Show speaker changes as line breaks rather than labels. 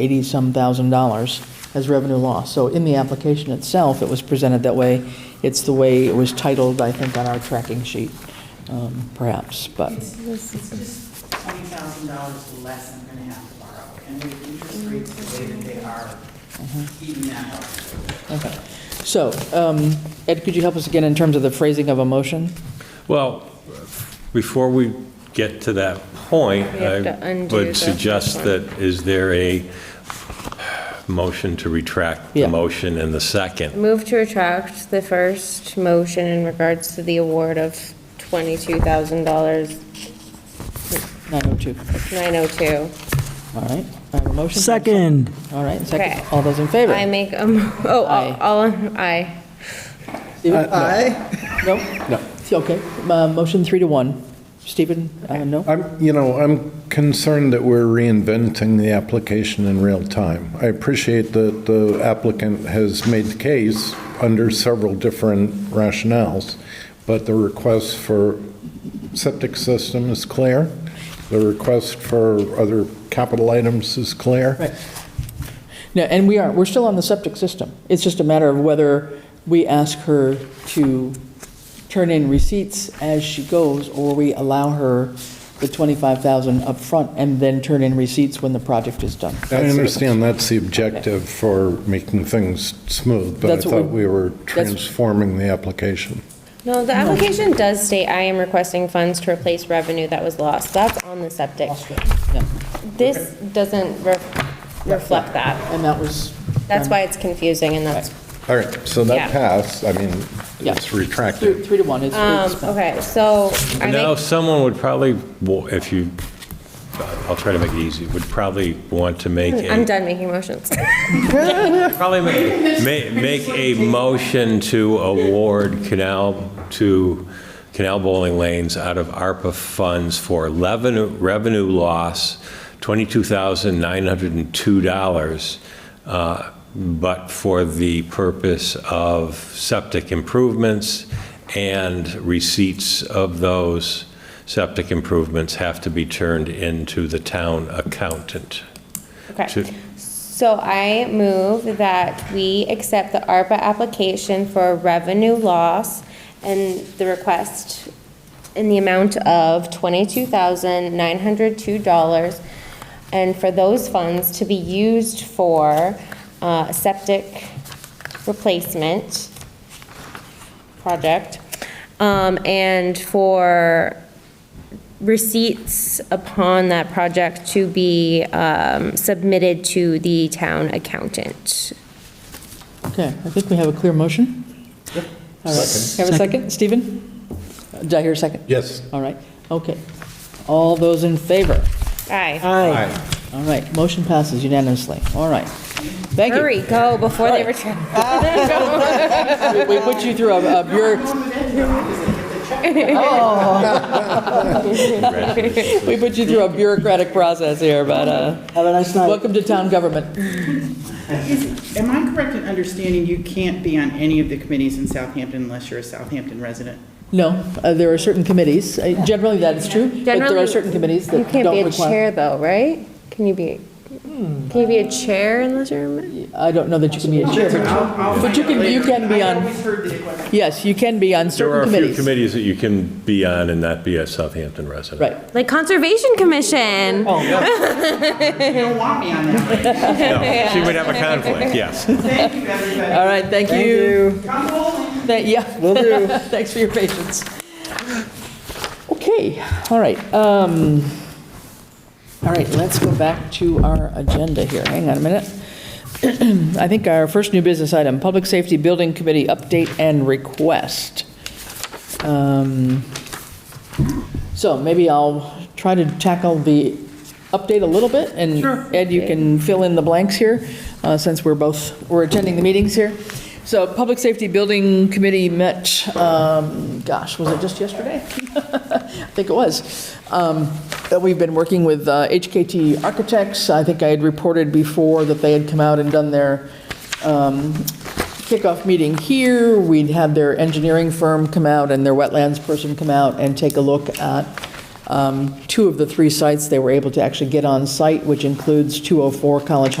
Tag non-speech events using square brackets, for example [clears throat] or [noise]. eighty-some thousand dollars as revenue loss. So in the application itself, it was presented that way. It's the way it was titled, I think, on our tracking sheet, um, perhaps, but,
It's it's just twenty thousand dollars less I'm gonna have to borrow, and with interest
Mm-hmm.
rates the way that they are, even now.
okay. So, um, Ed, could you help us again in terms of the phrasing of a motion?
Well, before we get to that point,
We have to
I
undo the
would suggest
first
that, is there a motion to retract
Yeah.
the motion and the second?
Move to retract the first motion in regards to the award of $22,902.
Nine oh two, all right. I have a motion.
Second.
All right, second.
Okay.
All those in favor?
I make, a mo- oh,
Aye.
all- all, aye.
Uh,
Aye. No? No. Okay, Uh, motion three to one. Stephen, uh, no?
I'm, you know, I'm concerned that we're reinventing the application in real time. I appreciate that the applicant has made the case under several different rationales, but the request for septic system is clear, the request for other capital items is clear.
Right. No, and we are, we're still on the septic system. It's just a matter of whether we ask her to turn in receipts as she goes, or we allow her the 25,000 up front and then turn in receipts when the project is done.
I understand that's the objective for making things smooth, but I
That's what we-
thought we were
that's-
transforming the application.
No, the application does state, I am requesting funds to replace revenue that was lost. That's on the septic.
Yeah,
This doesn't re- reflect that.
And that was.
That's why it's confusing and that's,
All right, so
Yeah.
that passed, I mean,
Yeah.
it's retracted.
Three three to one. It's-
um,
it's-
okay, so I
Now,
make,
someone would probably, wa- if you, I'll try to make it easy, would probably want to make
I'm
a,
done making motions.
probably make, ma- make a motion to award canal, to Canal Bowling Lanes out of ARPA funds for revenue, revenue loss, $22,902, uh, but for the purpose of septic improvements, and receipts of those septic improvements have to be turned into the town accountant.
Okay.
to-
So I move that we accept the ARPA application for revenue loss and the request in the amount of twenty-two thousand nine hundred two dollars and for those funds to be used for, uh, septic replacement project, um, and for receipts upon that project to be um, submitted to the town accountant.
Okay, I think we have a clear motion. All right. Have a second, Stephen? Uh, Did I hear a second?
Yes.
All right, okay. All those in favor?
Aye.
Uh,
Aye.
All right, motion passes unanimously. All right. Thank you. Oh.
Hurry, go before they
[laughs]
return.
We put you through a a bureau,
Congratulations.
we put you through a bureaucratic process here, but, uh,
Have a nice night.
welcome to town government.
Is, am I correct in understanding you can't be on any of the committees in Southampton unless you're a Southampton resident?
No, uh, there are certain committees, uh, generally that is true, but there are
Generally,
certain committees
[laughs] You
that
can't be
don't
a
require. Hmm.
chair though, right? Can you be, can you be a chair unless you're, a-
I don't know that you can be a chair, but you- but you can, you can be
I
on,
always heard that it wasn't.
yes, you can be on
There are
certain
a few
committees.
committees that you can be on and not be a Southampton resident.
Right,
like Conservation Commission?
Oh,
You don't want me on that. list.
[laughs] No, She would have
[laughs]
a conflict, yes.
Thank you, everybody.
all right, thank you.
Come bowling.
Thank you. Yeah. Will do. [laughs] Thanks for your patience. Okay, all right. um, All right, let's go back to our agenda here. Hang on a minute. [clears throat] I think our first new business item, Public Safety Building Committee update and request. Um, So maybe I'll try to tackle the update a little bit, and Ed, you can fill in the blanks here, uh, since we're both, we're attending the meetings here. So Public Safety Building Committee met, um, gosh, was it just yesterday? [laughs] I think it was. Um, that We've been working with uh, HKT Architects. I think I had reported before that they had come out and done their kickoff meeting here, we'd have their engineering firm come out and their wetlands person come out and take a look at um, two of the three sites they were able to actually get on site, which includes 204 College